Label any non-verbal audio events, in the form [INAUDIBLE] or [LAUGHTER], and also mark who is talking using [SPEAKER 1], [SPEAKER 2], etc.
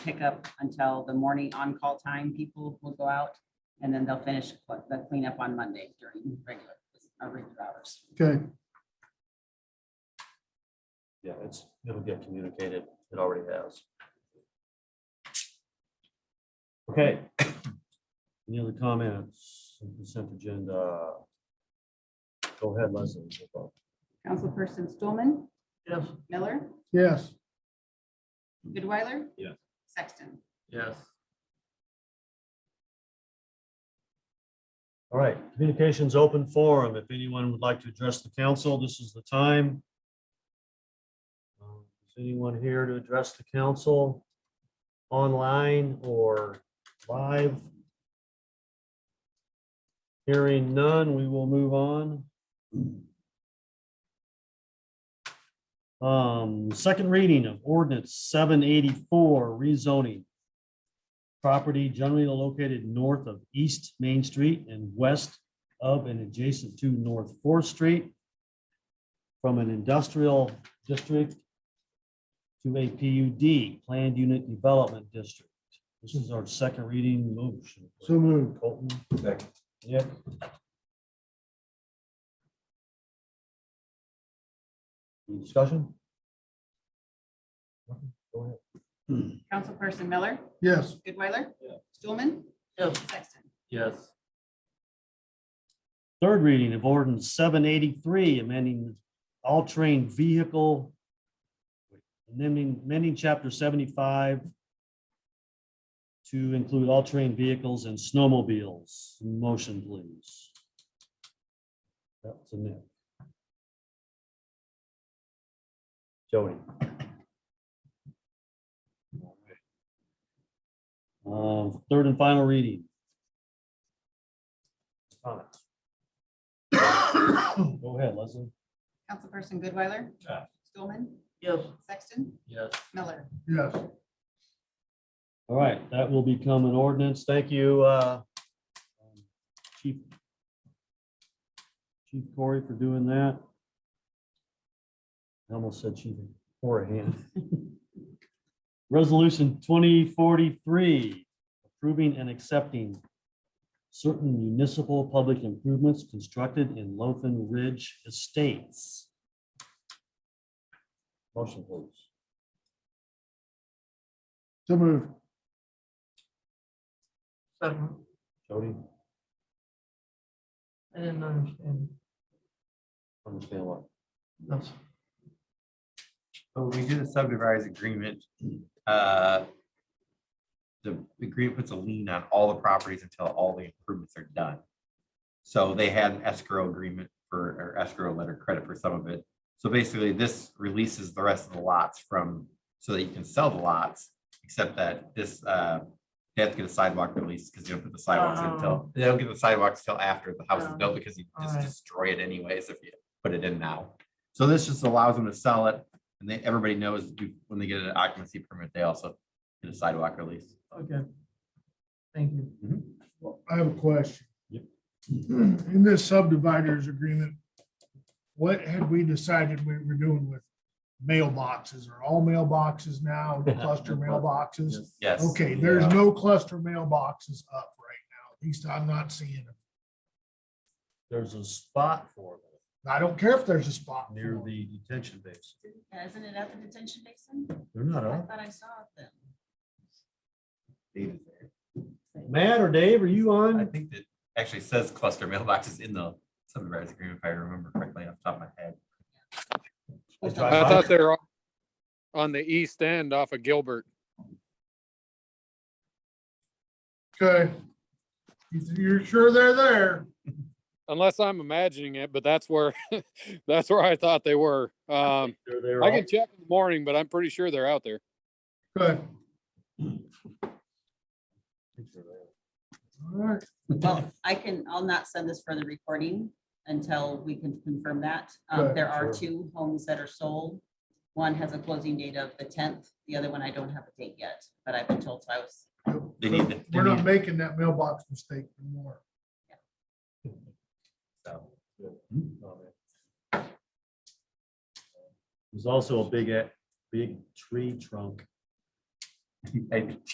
[SPEAKER 1] pickup until the morning on-call time. People will go out and then they'll finish what- the cleanup on Monday during regular, our regular hours.
[SPEAKER 2] Okay,
[SPEAKER 3] Yeah, it's, it'll get communicated. It already has. Okay. Any other comments? on Consent agenda. Go ahead, Leslie.
[SPEAKER 1] Councilperson Stulman?
[SPEAKER 3] Yes.
[SPEAKER 1] Miller?
[SPEAKER 2] yes,
[SPEAKER 1] Goodweiler?
[SPEAKER 3] Yes.
[SPEAKER 1] Sexton?
[SPEAKER 3] Yes. All right, communications open forum. If anyone would like to address the council, this is the time. Um, Is anyone here to address the council online or live? Hearing none, we will move on. Um, second reading of ordinance seven eighty-four rezoning. Property generally located north of East Main Street and west of and adjacent to North Fourth Street. From an industrial district. To a PUD, Planned Unit Development District. This is our second reading motion.
[SPEAKER 2] so moved.
[SPEAKER 3] Colton. Yep. Any discussion? Go ahead.
[SPEAKER 1] Councilperson Miller?
[SPEAKER 2] Yes,
[SPEAKER 1] Goodweiler?
[SPEAKER 3] Yeah.
[SPEAKER 1] Stulman? Sexton?
[SPEAKER 3] Yes. Third reading of ordinance seven eighty-three, amending all terrain vehicle. Amending, amending chapter seventy-five. To include all terrain vehicles and snowmobiles. Motion, please. That's a Nick. Jody. Uh, third and final reading comments? Go ahead, Leslie.
[SPEAKER 1] Councilperson Goodweiler?
[SPEAKER 3] Yeah.
[SPEAKER 1] Stulman?
[SPEAKER 3] Yes.
[SPEAKER 1] Sexton?
[SPEAKER 3] Yes.
[SPEAKER 1] Miller?
[SPEAKER 2] yes.
[SPEAKER 3] All right, that will become an ordinance. Thank you, uh, Chief. Chief Corey for doing that. I almost said Chief Corey. [LAUGHS] Resolution twenty forty-three, approving and accepting certain municipal public improvements constructed in Loafen Ridge Estates. Motion, please.
[SPEAKER 2] So moved.
[SPEAKER 4] Second,
[SPEAKER 3] Jody,
[SPEAKER 4] I didn't understand.
[SPEAKER 3] understand what?
[SPEAKER 4] That's
[SPEAKER 5] But when we do the subdivision agreement, uh, the agreement puts a lien on all the properties until all the improvements are done. So they had an escrow agreement for, or escrow letter credit for some of it. So basically, this releases the rest of the lots from, so that you can sell the lots, except that this, uh, they have to get a sidewalk release because you don't put the sidewalks in until, they don't get the sidewalks till after the house is
[SPEAKER 4] Oh.
[SPEAKER 5] built because you just
[SPEAKER 4] Alright.
[SPEAKER 5] destroy it anyways if you put it in now. So this just allows them to sell it and they, everybody knows you- when they get an occupancy permit, they also get a sidewalk release.
[SPEAKER 4] okay. Thank you.
[SPEAKER 2] I have a question.
[SPEAKER 3] Mm-hmm. Yep.
[SPEAKER 2] In this subdividers agreement, what had we decided we were doing with mailboxes? Are all mailboxes
[SPEAKER 3] [LAUGHS]
[SPEAKER 2] now cluster mailboxes?
[SPEAKER 5] Yes.
[SPEAKER 2] Okay, there's
[SPEAKER 3] Yeah.
[SPEAKER 2] no cluster mailboxes up right now. At least I'm not seeing them.
[SPEAKER 3] There's a spot for them
[SPEAKER 2] I don't care if there's a spot. for
[SPEAKER 3] near
[SPEAKER 2] them.
[SPEAKER 3] the detention base.
[SPEAKER 1] Yeah, Isn't it at the detention basin?
[SPEAKER 3] They're not
[SPEAKER 1] I
[SPEAKER 3] on.
[SPEAKER 1] thought I saw them.
[SPEAKER 5] David,
[SPEAKER 3] Matt or Dave, are you
[SPEAKER 5] I
[SPEAKER 3] on?
[SPEAKER 5] think that actually says cluster mailboxes in the subdivision agreement, if I remember correctly off the top of my head.
[SPEAKER 6] I thought they were on- on the east end off of Gilbert.
[SPEAKER 2] Okay. You- You're sure they're there?
[SPEAKER 6] Unless I'm imagining it, but that's where, [LAUGHS] that's where I thought they were. Um,
[SPEAKER 3] They're there
[SPEAKER 6] I
[SPEAKER 3] all-
[SPEAKER 6] can check in the morning, but I'm pretty sure they're out there.
[SPEAKER 2] Good.
[SPEAKER 3] they're there.
[SPEAKER 2] All right.
[SPEAKER 1] Well, I can, I'll not send this for the recording until we can confirm that. Um,
[SPEAKER 2] Right,
[SPEAKER 1] there are
[SPEAKER 3] sure.
[SPEAKER 1] two homes that are sold. One has a closing date of the tenth, the other one I don't have a date yet, but I've been told, so I was,
[SPEAKER 5] They need to- they
[SPEAKER 2] We're not
[SPEAKER 5] need-
[SPEAKER 2] making that mailbox mistake anymore.
[SPEAKER 5] So,
[SPEAKER 3] There's also a big, a- big tree trunk
[SPEAKER 5] [LAUGHS] I